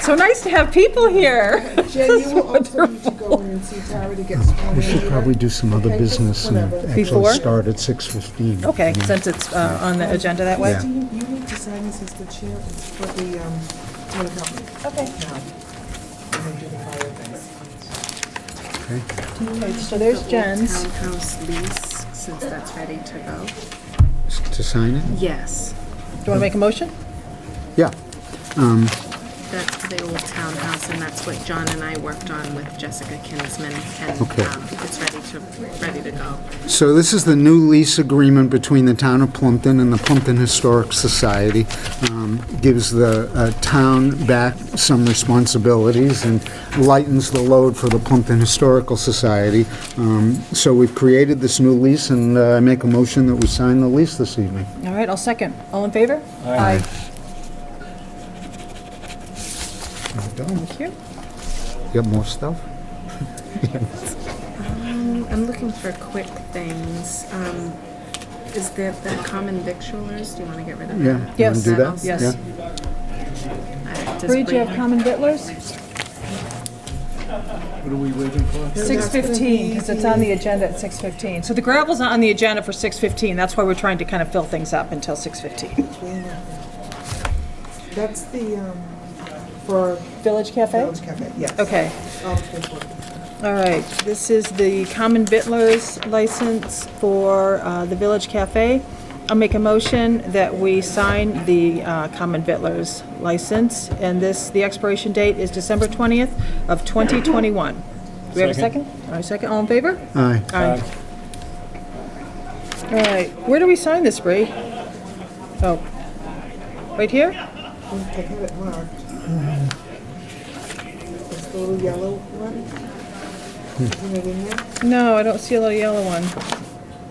So nice to have people here. Jay, you will also need to go in and see Tara to get sworn in. We should probably do some other Okay, just business and whatever. Before? actually start at 6:15. Okay, since it's uh, on the agenda that way. Yeah. Do you, you need to sign this as the chair for the, um, town company. Okay. Now, and then do the fire things. So there's Jen's. Townhouse lease, since that's ready to go. S- To sign it? Yes, Do you want to make a motion? Yeah. that's the old townhouse, and that's what John and I worked on with Jessica Kinsman, and Okay. um, it's ready to, ready to go. So this is the new lease agreement between the town of Plumpton and the Plumpton Historic Society. Um, Gives the uh, town back some responsibilities and lightens the load for the Plumpton Historical Society. Um, So we've created this new lease, and uh, I make a motion that we sign the lease this evening. All right, I'll second. All in favor? Aye. Thank you. Got more stuff? I'm looking for quick things. Um, Is there the common victualers, do you want to get rid of Yeah. that? you wanna Yes. do that? Yes. Yeah. Uh, does Bree, do you have Bree- common vittlers? What are we waiting for? Six fifteen, because it's on the agenda at six fifteen. So the gravel's not on the agenda for six fifteen, that's why we're trying to kind of fill things up until six fifteen. That's the, um, for Village Cafe? Village Cafe, yes. Okay, All the paperwork. all right. This is the common vittlers license for uh, the Village Cafe. I'll make a motion that we sign the uh, common vittlers license, and this, the expiration date is December twentieth of twenty twenty-one. Do we have a second? Second. All right, second, all in favor? Aye. Aye. All right, where do we sign this, Bree? Oh, right here? I had it marked. It's the little yellow one. Hmm. Isn't it in there? No, I don't see a little yellow one.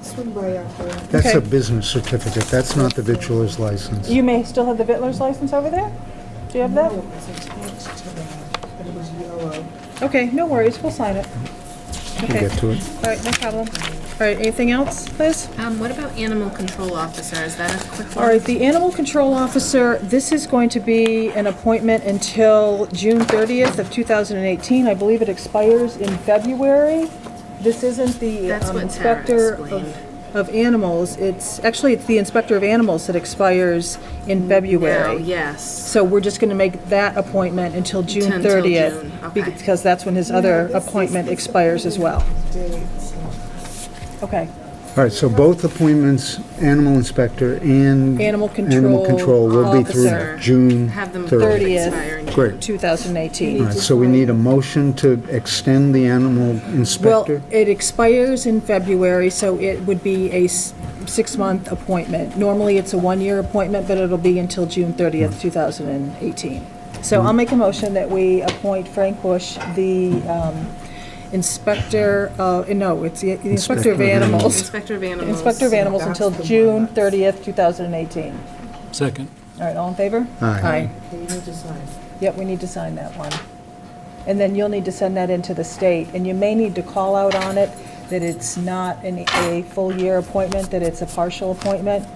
Swing by uh, after. That's Okay. a business certificate, that's not the vitriol's license. You may still have the Vittler's license over there? Do you have that? No, it was attached to that, and it was yellow. Okay, no worries, we'll sign it. We'll Okay, get to it. all right, no problem. All right, anything else, Liz? Um, What about animal control officer, is that a quick one? All right, the animal control officer, this is going to be an appointment until June 30th of 2018. I believe it expires in February. This isn't the That's um, what Tara inspector explained. of, of animals. It's, actually, it's the inspector of animals that expires in Mm, No, February. yes. So we're just going to make that appointment until June Until June, 30th. okay. Because that's when his other appointment expires as well. Dates. Okay. All right, so both appointments, animal inspector and... Animal Animal control will be officer. through June Have them 30th. Thirtieth. expire in Great. 2018. All right, so we need a motion to extend the animal Well, inspector? it expires in February, so it would be a s- six-month appointment. Normally, it's a one-year appointment, but it'll be until June 30th, 2018. So I'll make a motion that we appoint Frank Bush, the um, inspector, of- eh, no, it's the the inspector of Inspector of animals. Inspector of animals. Inspector of animals until That's the one June that's- 30th, 2018. Second. All right, all in favor? Aye. Okay, you need to sign. Yep, we need to sign that one. And then you'll need to send that into the state, and you may need to call out on it that it's not an, a full-year appointment, that it's a partial appointment.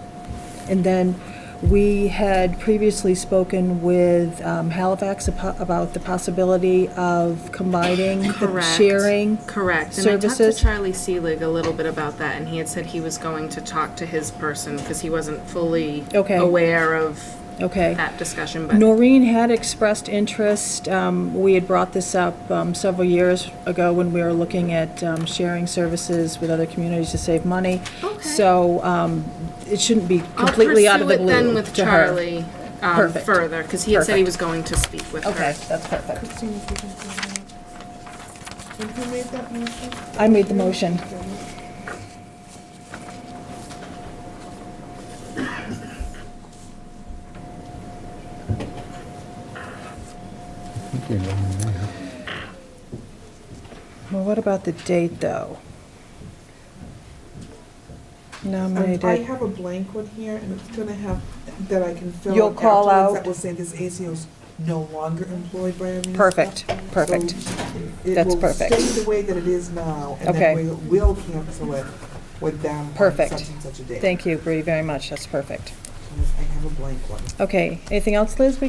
And then we had previously spoken with um, Halifax apo- about the possibility of combining the Correct. sharing. Correct. And I talked to services. Charlie Seelig a little bit about that, and he had said he was going to talk to his person because he wasn't fully Okay. aware of Okay. that discussion. But Noreen had expressed interest. Um, We had brought this up um, several years ago when we were looking at um, sharing services with other communities to save money. Okay. So um, it shouldn't be I'll completely out of the pursue blue it to her. then with Charlie um, Perfect. further because he had said he Perfect. was going to speak with Okay, her. that's perfect. Christine, if you can sign that. And who made that motion? I made the motion. Okay, well, Well, what about the date, though? Um, I Nominated. have a blank one here, and it's gonna have, that I can fill. You'll in call afterwards out- That will say this ACO's no longer employed by our municipal. Perfect, perfect. That's perfect. It will stay the way that it is now, and Okay. then we will cancel it with them on such Perfect. and such a date. Thank you, Bree, very much. That's perfect. I have a blank one. Okay, anything else, Liz, we